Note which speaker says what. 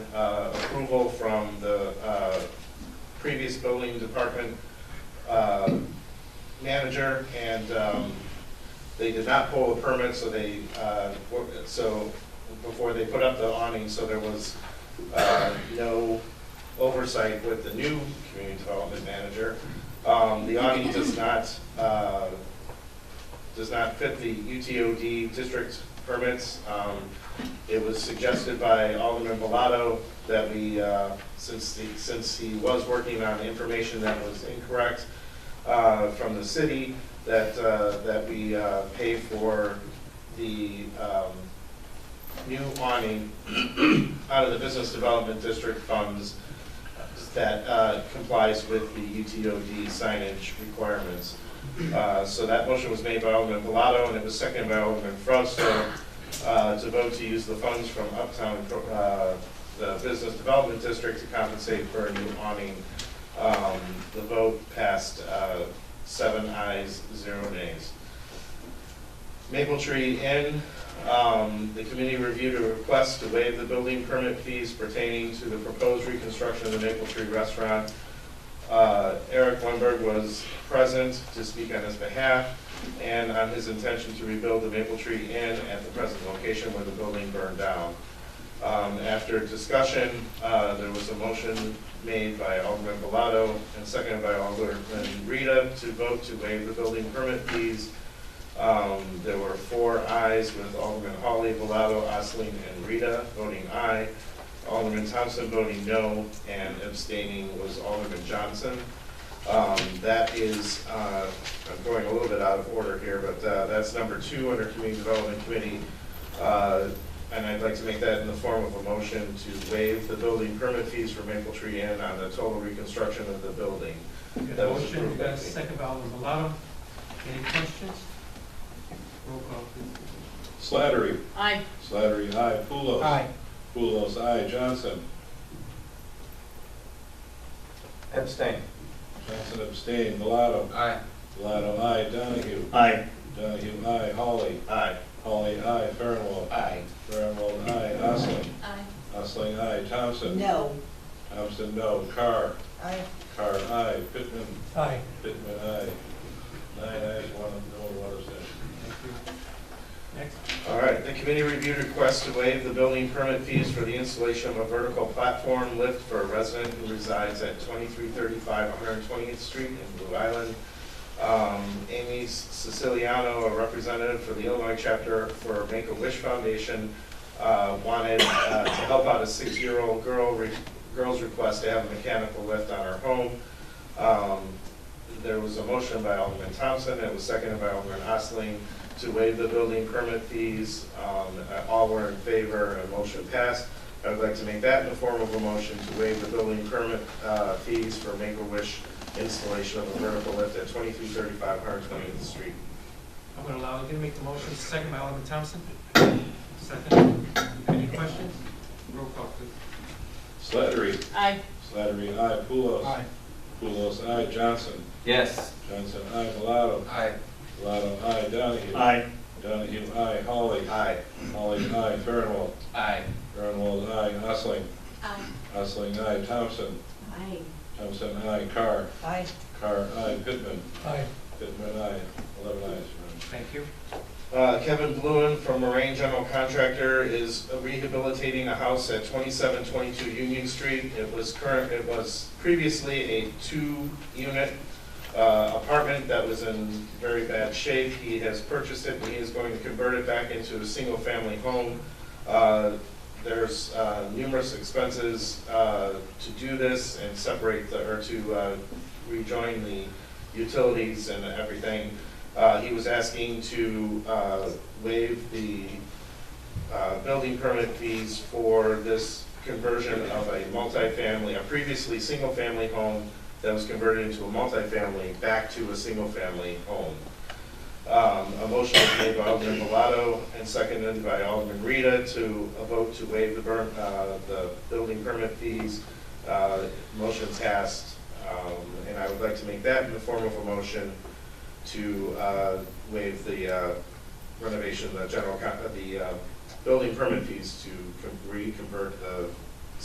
Speaker 1: uh, approval from the uh, previous building department uh, manager, and um, they did not pull the permit, so they, uh, were- so, before they put up the awning, so there was uh, no oversight with the new community development manager. Um, The awning does not uh, does not fit the UTOD district permits. Um, It was suggested by Alderman Bellato that we, uh, since the, since he was working on information that was incorrect uh, from the city, that, uh, that we uh, pay for the um, new awning out of the Business Development District funds that uh, complies with the UTOD signage requirements. Uh, So that motion was made by Alderman Bellato, and it was seconded by Alderman Frosto uh, to vote to use the funds from Uptown, uh, the Business Development District to compensate for a new awning. Um, The vote passed uh, seven ayes, zero nays. Maple Tree Inn, um, the committee reviewed a request to waive the building permit fees pertaining to the proposed reconstruction of the Maple Tree Restaurant uh, Eric Lundberg was present to speak on his behalf and on his intention to rebuild the Maple Tree Inn at the present location where the building burned down. Um, After discussion, uh, there was a motion made by Alderman Bellato and seconded by Alderman Rita to vote to waive the building permit fees. Um, There were four ayes with Alderman Hawley, Bellato, Osling, and Rita voting aye. Alderman Thompson voting no, and abstaining was Alderman Johnson. Um, That is, uh, I'm going a little bit out of order here, but uh, that's number two under Community Development Committee. Uh, And I'd like to make that in the form of a motion to waive the building permit fees for Maple Tree Inn on the total reconstruction of the building.
Speaker 2: Got
Speaker 1: That
Speaker 2: a
Speaker 1: was
Speaker 2: motion,
Speaker 1: approved
Speaker 2: got
Speaker 1: by
Speaker 2: a
Speaker 1: me.
Speaker 2: second by Alderman Bellato. Any questions? Roll call, please.
Speaker 3: Slattery.
Speaker 4: Aye.
Speaker 3: Slattery, aye. Pulos.
Speaker 5: Aye.
Speaker 3: Pulos, aye. Johnson.
Speaker 5: Abstain.
Speaker 3: Johnson abstained. Bellato.
Speaker 5: Aye.
Speaker 3: Bellato, aye. Donahue.
Speaker 1: Aye.
Speaker 3: Donahue, aye. Holly.
Speaker 1: Aye.
Speaker 3: Holly, aye. Farinwald.
Speaker 1: Aye.
Speaker 3: Farinwald, aye. Osling.
Speaker 4: Aye.
Speaker 3: Osling, aye. Thompson.
Speaker 6: No.
Speaker 3: Thompson, no. Carr.
Speaker 6: I,
Speaker 3: Carr, aye. Pittman.
Speaker 2: Aye.
Speaker 3: Pittman, aye. Nine ayes, one, no, one abstention.
Speaker 2: Next.
Speaker 1: All right, the committee reviewed requests to waive the building permit fees for the installation of a vertical platform lift for a resident who resides at 2335 120th Street in Blue Island. Um, Amy Siciliano, a representative for the Illinois chapter for Make-A-Wish Foundation, uh, wanted uh, to help out a six-year-old girl, re- girl's request to have a mechanical lift on her home. Um, There was a motion by Alderman Thompson, it was seconded by Alderman Osling to waive the building permit fees. Um, uh, All were in favor, and motion passed. I would like to make that in the form of a motion to waive the building permit uh, fees for Make-A-Wish installation of a vertical lift at 2335 120th Street.
Speaker 2: I'm gonna allow, I'm gonna make the motion, second by Alderman Thompson. Second. Any questions? Roll call, please.
Speaker 3: Slattery.
Speaker 4: Aye.
Speaker 3: Slattery, aye. Pulos.
Speaker 5: Aye.
Speaker 3: Pulos, aye. Johnson.
Speaker 5: Yes.
Speaker 3: Johnson, aye. Bellato.
Speaker 5: Aye.
Speaker 3: Bellato, aye. Donahue.
Speaker 1: Aye.
Speaker 3: Donahue, aye. Holly.
Speaker 1: Aye.
Speaker 3: Holly, aye. Farinwald.
Speaker 5: Aye.
Speaker 3: Grunwald, aye. Osling.
Speaker 4: Aye.
Speaker 3: Osling, aye. Thompson.
Speaker 4: Aye.
Speaker 3: Thompson, aye. Carr.
Speaker 6: I,
Speaker 3: Carr, aye. Pittman.
Speaker 2: Aye.
Speaker 3: Pittman, aye. Eleven ayes. Your
Speaker 2: Thank you.
Speaker 1: Uh, Kevin Bluen from Moraine General Contractor is rehabilitating a house at 2722 Union Street. It was current, it was previously a two-unit uh, apartment that was in very bad shape. He has purchased it, and he is going to convert it back into a single-family home. Uh, There's uh, numerous expenses uh, to do this and separate, the or to uh, rejoin the utilities and everything. Uh, He was asking to uh, waive the uh, building permit fees for this conversion of a multifamily, a previously single-family home that was converted into a multifamily back to a single-family home. Um, A motion was made by Alderman Bellato and seconded by Alderman Rita to a vote to waive the burn, uh, the building permit fees. Uh, Motion passed, um, and I would like to make that in the form of a motion to uh, waive the uh, renovation, the general, con- uh, the uh, building permit fees to con- reconvert the